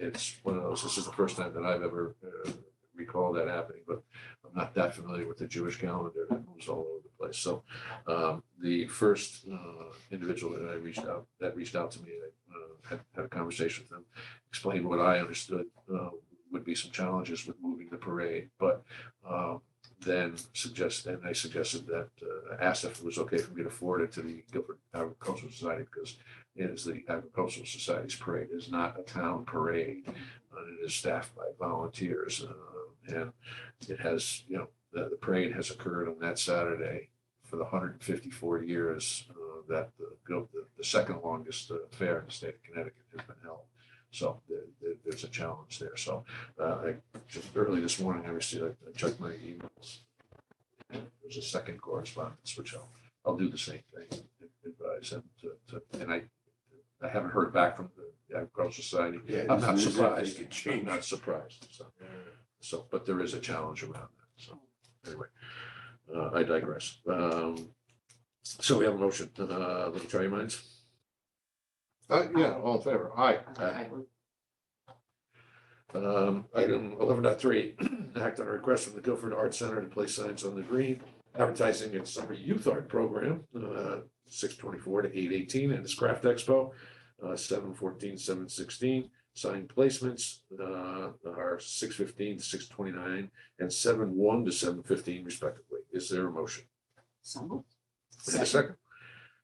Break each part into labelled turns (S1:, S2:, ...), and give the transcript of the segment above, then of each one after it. S1: it's one of those, this is the first time that I've ever uh, recalled that happening, but I'm not that familiar with the Jewish calendar. It was all over the place. So um, the first uh, individual that I reached out, that reached out to me, I uh, had had a conversation with them, explained what I understood uh, would be some challenges with moving the parade, but um, then suggest, and I suggested that, uh, asked if it was okay for me to forward it to the Guilford Agricultural Society because it is the Agricultural Society's parade, it is not a town parade. uh, It is staffed by volunteers, uh, and it has, you know, the, the parade has occurred on that Saturday for the hundred and fifty-four years, uh, that the, Guil- the, the second longest uh, fair in the state of Connecticut has been held. So there, there- there's a challenge there. So, uh, I just early this morning, I received, I checked my emails. There's a second correspondence, which I'll, I'll do the same thing, advise them to, to, and I, I haven't heard back from the Agricultural Society.
S2: Yeah,
S1: I'm not
S2: this is- this
S1: surprised,
S2: could
S1: I'm
S2: change.
S1: not surprised, so, so, but there is a challenge around that, so, anyway. Uh, I digress. Um, so we have a motion, uh, let me try your minds. Uh, yeah,
S2: oh.
S1: all in favor, aye.
S3: I
S1: Um, item eleven dot three, act on a request from the Guilford Arts Center to place signs on the green advertising its summer youth art program, uh, six twenty-four to eight eighteen, and its craft expo, uh, seven fourteen, seven sixteen. Sign placements, uh, are six fifteen, six twenty-nine, and seven one to seven fifteen respectively. Is there a motion?
S3: So moved.
S1: And a second.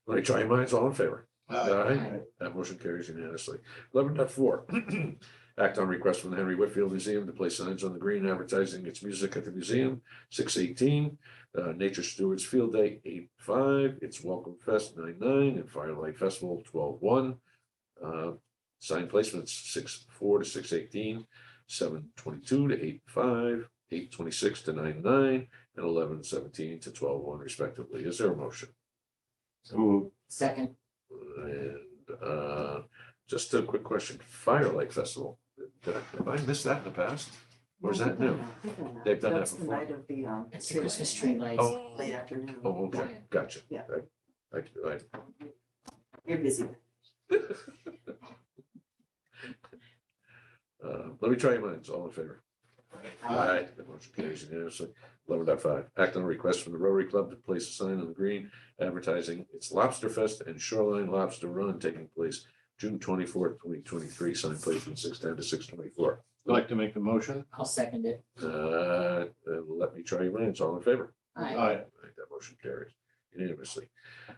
S1: Let me try your minds, all in favor?
S2: Aye.
S1: Aye. That motion carries unanimously. Eleven point four. act on request from the Henry Whitfield Museum to place signs on the green advertising its music at the museum, six eighteen. Uh, Nature Stewards Field Day, eight five, its Welcome Fest, nine nine, and Firelight Festival, twelve one. Uh, sign placements, six four to six eighteen, seven twenty-two to eight five, eight twenty-six to nine nine, and eleven seventeen to twelve one respectively. Is there a motion?
S2: So moved.
S3: Second,
S1: And uh, just a quick question, Firelight Festival, did I- have I missed that in the past? Or is that new? They've done that
S4: That's the
S1: before.
S4: night of the, um,
S3: it's the Christmas tree lights.
S1: Oh.
S4: late afternoon.
S1: Oh, okay, gotcha.
S4: Yeah.
S1: I, I- I,
S4: You're busy.
S1: uh, let me try your minds, all in favor?
S3: Aye.
S1: Aye, the motion carries unanimously. Eleven dot five, act on a request from the Rotary Club to place a sign on the green advertising its Lobster Fest and Shoreline Lobster Run taking place June twenty-fourth, twenty twenty-three, sign placement six ten to six twenty-four.
S2: I'd like to make the motion.
S3: I'll second it.
S1: Uh, and let me try your minds, all in favor?
S3: Aye.
S2: Aye.
S1: Alright, That motion carries unanimously.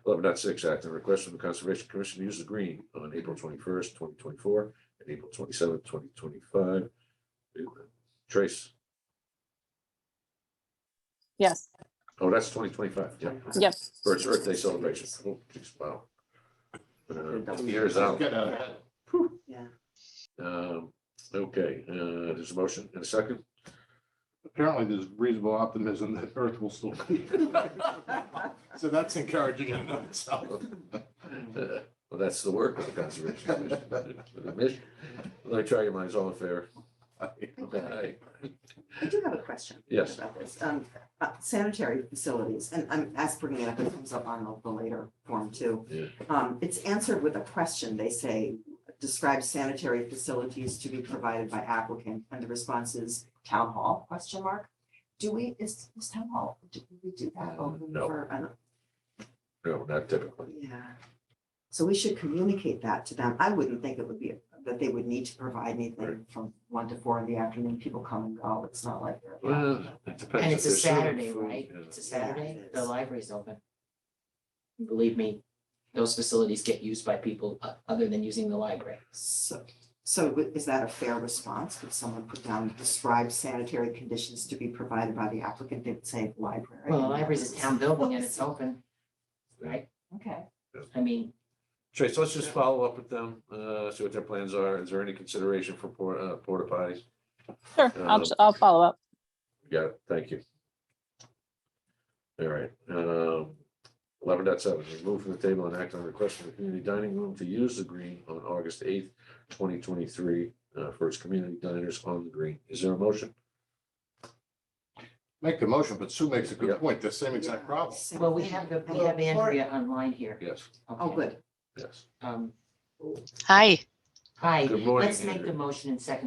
S1: Eleven dot six, act on a request from the Conservation Commission to use the green on April twenty-first, twenty twenty-four, and April twenty-seventh, twenty twenty-five. Trace,
S5: Yes,
S1: oh, that's twenty twenty-five, yeah,
S5: yes.
S1: for its Earth Day celebration. Oh, geez, wow. Uh, Years out.
S2: Get out ahead.
S4: Yeah.
S1: Um, okay, uh, there's a motion and a second.
S2: Apparently, there's reasonable optimism that Earth will still be. So that's encouraging in and of itself.
S1: Uh, Well, that's the work of the Conservation Commission. The mission. Let me try your minds, all in favor? Aye.
S4: I do have a question.
S1: Yes.
S4: About this, um, uh, sanitary facilities, and I'm asked bringing it up, it comes up on the later form too.
S1: Yeah.
S4: Um, it's answered with a question, they say, describe sanitary facilities to be provided by applicant, and the response is town hall, question mark? Do we, is, is town hall, do we do that open
S1: No.
S4: for, an-
S1: No, not typically.
S4: Yeah. So we should communicate that to them. I wouldn't think it would be, that they would need to provide anything from one to four in the afternoon. People come and go. It's not like. they're-
S1: Well, uh, it depends.
S3: And
S1: if
S3: it's a
S1: they're serving
S3: Saturday,
S1: food,
S3: right?
S1: yeah.
S3: It's a Saturday. The library's open. Believe me, those facilities get used by people o- other than using the library.
S4: So, so wi- is that a fair response? Would someone put down, describe sanitary conditions to be provided by the applicant? They'd say library.
S3: Well, the library's a town building and it's open. Right?
S4: Okay.
S3: I mean,
S1: Trace, let's just follow up with them, uh, see what their plans are. Is there any consideration for por- uh, porta potties?
S5: Sure, I'll, I'll follow up.
S1: Got it. Thank you. All right, um, eleven dot seven, remove from the table and act on request from the community dining room to use the green on August eighth, twenty twenty-three, uh, for its community diners on the green. Is there a motion?
S2: Make the motion, but Sue makes a
S1: Yeah.
S2: good point, the same exact problem.
S4: Same
S3: well, we
S4: thing.
S3: have, the we have Andrea online here.
S1: Yes,
S4: Oh,
S3: Okay.
S4: good.
S1: yes.
S3: Um,
S5: Hi.
S3: Hi,
S1: Good morning,
S3: let's make
S1: Andrew.
S3: the motion and second